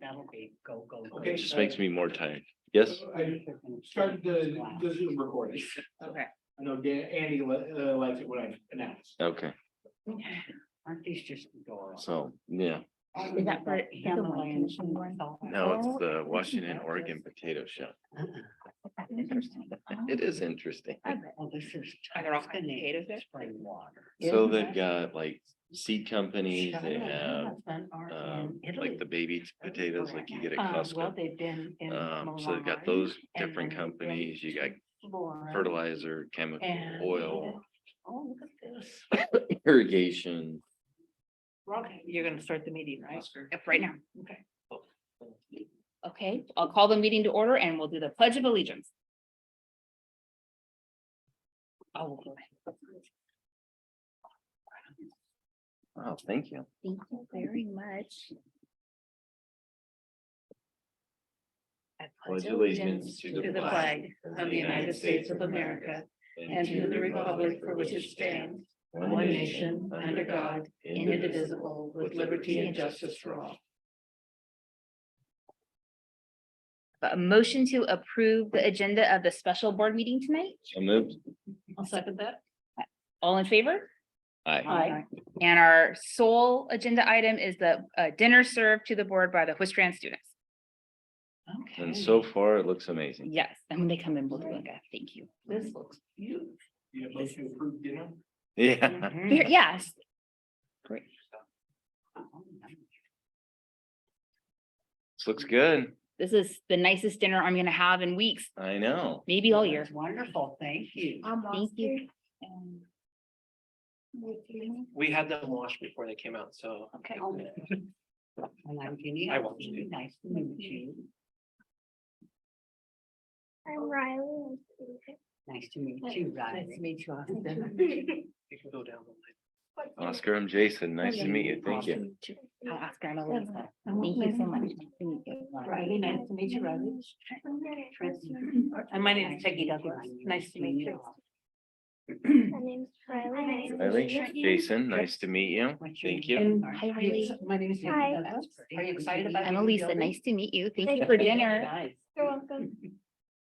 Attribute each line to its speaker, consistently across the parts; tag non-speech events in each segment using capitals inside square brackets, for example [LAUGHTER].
Speaker 1: that'll be go, go, go.
Speaker 2: Okay.
Speaker 3: Just makes me more tired. Yes?
Speaker 2: I started the, the Zoom recording.
Speaker 4: Okay.
Speaker 2: I know Dan, Andy li- uh, liked it when I announced.
Speaker 3: Okay,
Speaker 1: Aren't these just adorable?
Speaker 3: so, yeah,
Speaker 1: Is
Speaker 4: that for the Washington one?
Speaker 3: now it's the Washington, Oregon potato show. [LAUGHS]
Speaker 4: Oh, Mm-hmm.
Speaker 3: It is interesting.
Speaker 1: Well, this is.
Speaker 4: Are there all kinds of
Speaker 1: Tuscany
Speaker 4: potatoes there?
Speaker 1: Spring water.
Speaker 3: So they've got like seed companies, they have um like the baby potatoes like you get
Speaker 4: Um,
Speaker 3: at
Speaker 5: Uh, Well,
Speaker 3: Costco.
Speaker 5: they've been in.
Speaker 3: Um, so they've got those different companies, you got fertilizer, chemical, oil,
Speaker 5: Oh, look at this.
Speaker 3: irrigation.
Speaker 4: Okay, you're gonna Mm-hmm. start the meeting, right?
Speaker 2: Oscar.
Speaker 4: Yep, right now, okay. Okay, I'll call the meeting to order and we'll do the pledge of allegiance. Oh,
Speaker 3: Wow, Oh, thank you.
Speaker 4: thank you very much. I
Speaker 3: Pledge allegiance to the flag
Speaker 4: of the United States of America
Speaker 3: and to the republic for which it stands, one nation, under God, indivisible, with liberty and justice for all.
Speaker 4: A motion to approve the agenda of the special board meeting tonight?
Speaker 3: So moved.
Speaker 4: I'll second that. All in favor?
Speaker 3: Aye.
Speaker 5: Aye.
Speaker 4: And our sole agenda item is the uh, dinner served to the board by the Whistran students.
Speaker 3: And so far, it looks amazing.
Speaker 4: Yes, and when they come in, we'll do like a thank you.
Speaker 5: This
Speaker 3: [LAUGHS]
Speaker 5: looks beautiful.
Speaker 2: You have motion to approve dinner?
Speaker 3: Yeah. Mm-hmm.
Speaker 4: Here- Yes,
Speaker 3: This looks good.
Speaker 4: this is the nicest dinner I'm gonna have in weeks,
Speaker 3: I know.
Speaker 4: maybe all year. Um,
Speaker 1: That's Wonderful, thank you.
Speaker 4: Thank you.
Speaker 2: We had them washed before they came out, so.
Speaker 1: Okay. Well, I'm Jenny.
Speaker 2: I watched it.
Speaker 1: Nice to meet you.
Speaker 6: I'm Riley.
Speaker 1: Nice to meet you, Riley.
Speaker 5: meet you,
Speaker 6: Austin.
Speaker 5: [LAUGHS]
Speaker 2: You can go down the line.
Speaker 3: Oscar, I'm Jason. Nice to meet Oh, you. Thank you.
Speaker 4: I'll ask her, I'm Elisa. Uh, Thank you so much. Thank you.
Speaker 5: Riley, nice to meet you, Riley.
Speaker 4: And my name is Peggy Douglas. Nice to meet you. [LAUGHS]
Speaker 6: My name's Riley.
Speaker 3: Riley, Jason, nice to meet you.
Speaker 1: What's your
Speaker 3: Thank
Speaker 1: name?
Speaker 3: you.
Speaker 1: Sorry.
Speaker 4: Hi, Riley.
Speaker 5: My name is. Nikki
Speaker 6: Hi.
Speaker 5: Douglas.
Speaker 1: Are you excited about?
Speaker 4: I'm Elisa, nice to meet you. Thank
Speaker 6: Thank
Speaker 4: you
Speaker 6: you.
Speaker 4: for dinner.
Speaker 6: You're welcome.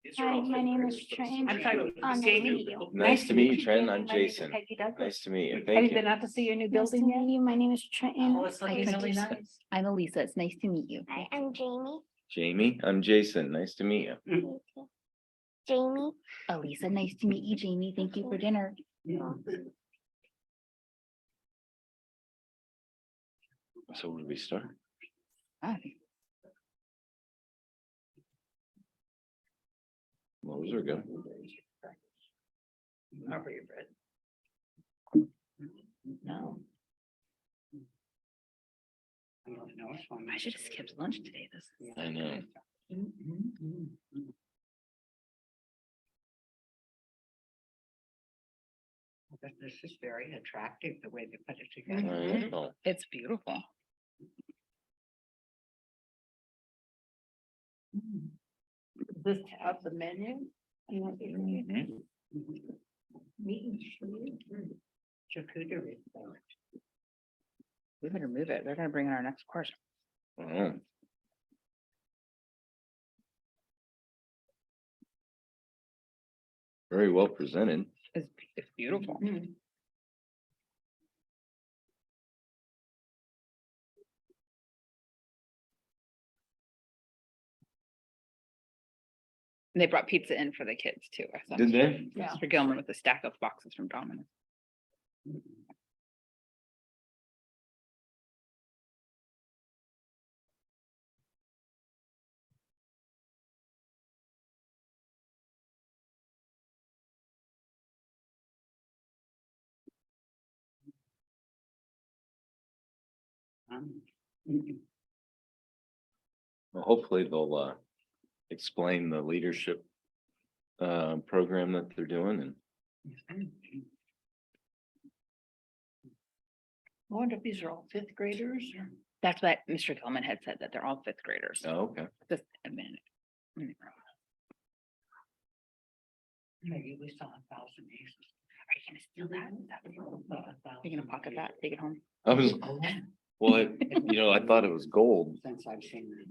Speaker 2: These are
Speaker 6: Hi,
Speaker 2: all
Speaker 6: my
Speaker 2: good
Speaker 6: name
Speaker 2: prayers,
Speaker 6: is
Speaker 2: but
Speaker 6: Trent.
Speaker 2: it's
Speaker 4: I'm sorry,
Speaker 2: good.
Speaker 6: Um,
Speaker 4: Jamie?
Speaker 3: Nice to meet you, Trent. I'm
Speaker 5: My name is
Speaker 3: Jason.
Speaker 5: Peggy Douglas.
Speaker 3: Nice to meet you.
Speaker 5: Have you
Speaker 3: Thank
Speaker 5: been
Speaker 3: you.
Speaker 5: out to see your new
Speaker 6: Nice to
Speaker 5: building yet?
Speaker 6: meet you. My name is Trenton.
Speaker 5: Oh, it's looking
Speaker 4: Hi,
Speaker 5: really
Speaker 4: Elisa.
Speaker 5: nice.
Speaker 4: I'm Elisa. It's nice to meet you.
Speaker 6: Hi, I'm Jamie.
Speaker 3: Jamie, I'm Jason. Nice to meet you.
Speaker 6: Me too. Jamie.
Speaker 4: Elisa, nice to meet you, Jamie. Thank you for dinner.
Speaker 3: So where do we start?
Speaker 4: Hi.
Speaker 3: Well, Those are good.
Speaker 1: Remember your bread. No. I don't know. it's one of my-
Speaker 4: I should have skipped lunch today. This is
Speaker 3: I know.
Speaker 1: Well, But this is very attractive, the way they put it
Speaker 3: I
Speaker 1: together.
Speaker 3: know.
Speaker 4: It's beautiful.
Speaker 5: This tab, the menu.
Speaker 3: Mhm.
Speaker 1: Meat and charcuterie. Charcuterie. board.
Speaker 4: We better move it. They're gonna bring in our next course.
Speaker 3: Oh, Very well presented.
Speaker 4: It's, it's beautiful.
Speaker 5: Mm-hmm.
Speaker 4: They brought pizza in for the kids too. I saw
Speaker 3: Did they?
Speaker 5: Yeah.
Speaker 4: Mr. Gilman with a stack of boxes from Domino's.
Speaker 1: Um,
Speaker 3: Well, hopefully they'll uh explain the leadership uh program that they're doing and
Speaker 5: I wonder if these are all fifth graders or?
Speaker 4: That's what Mr. Gilman had said, that they're all fifth graders.
Speaker 3: oh, okay.
Speaker 4: Just a minute. Let me grab-
Speaker 1: Maybe we saw a thousand aces.
Speaker 4: Are you gonna steal that? Are you gonna pocket that, take it home?
Speaker 3: I was, well, I- you know, I thought it was gold,
Speaker 1: Since I've seen. it.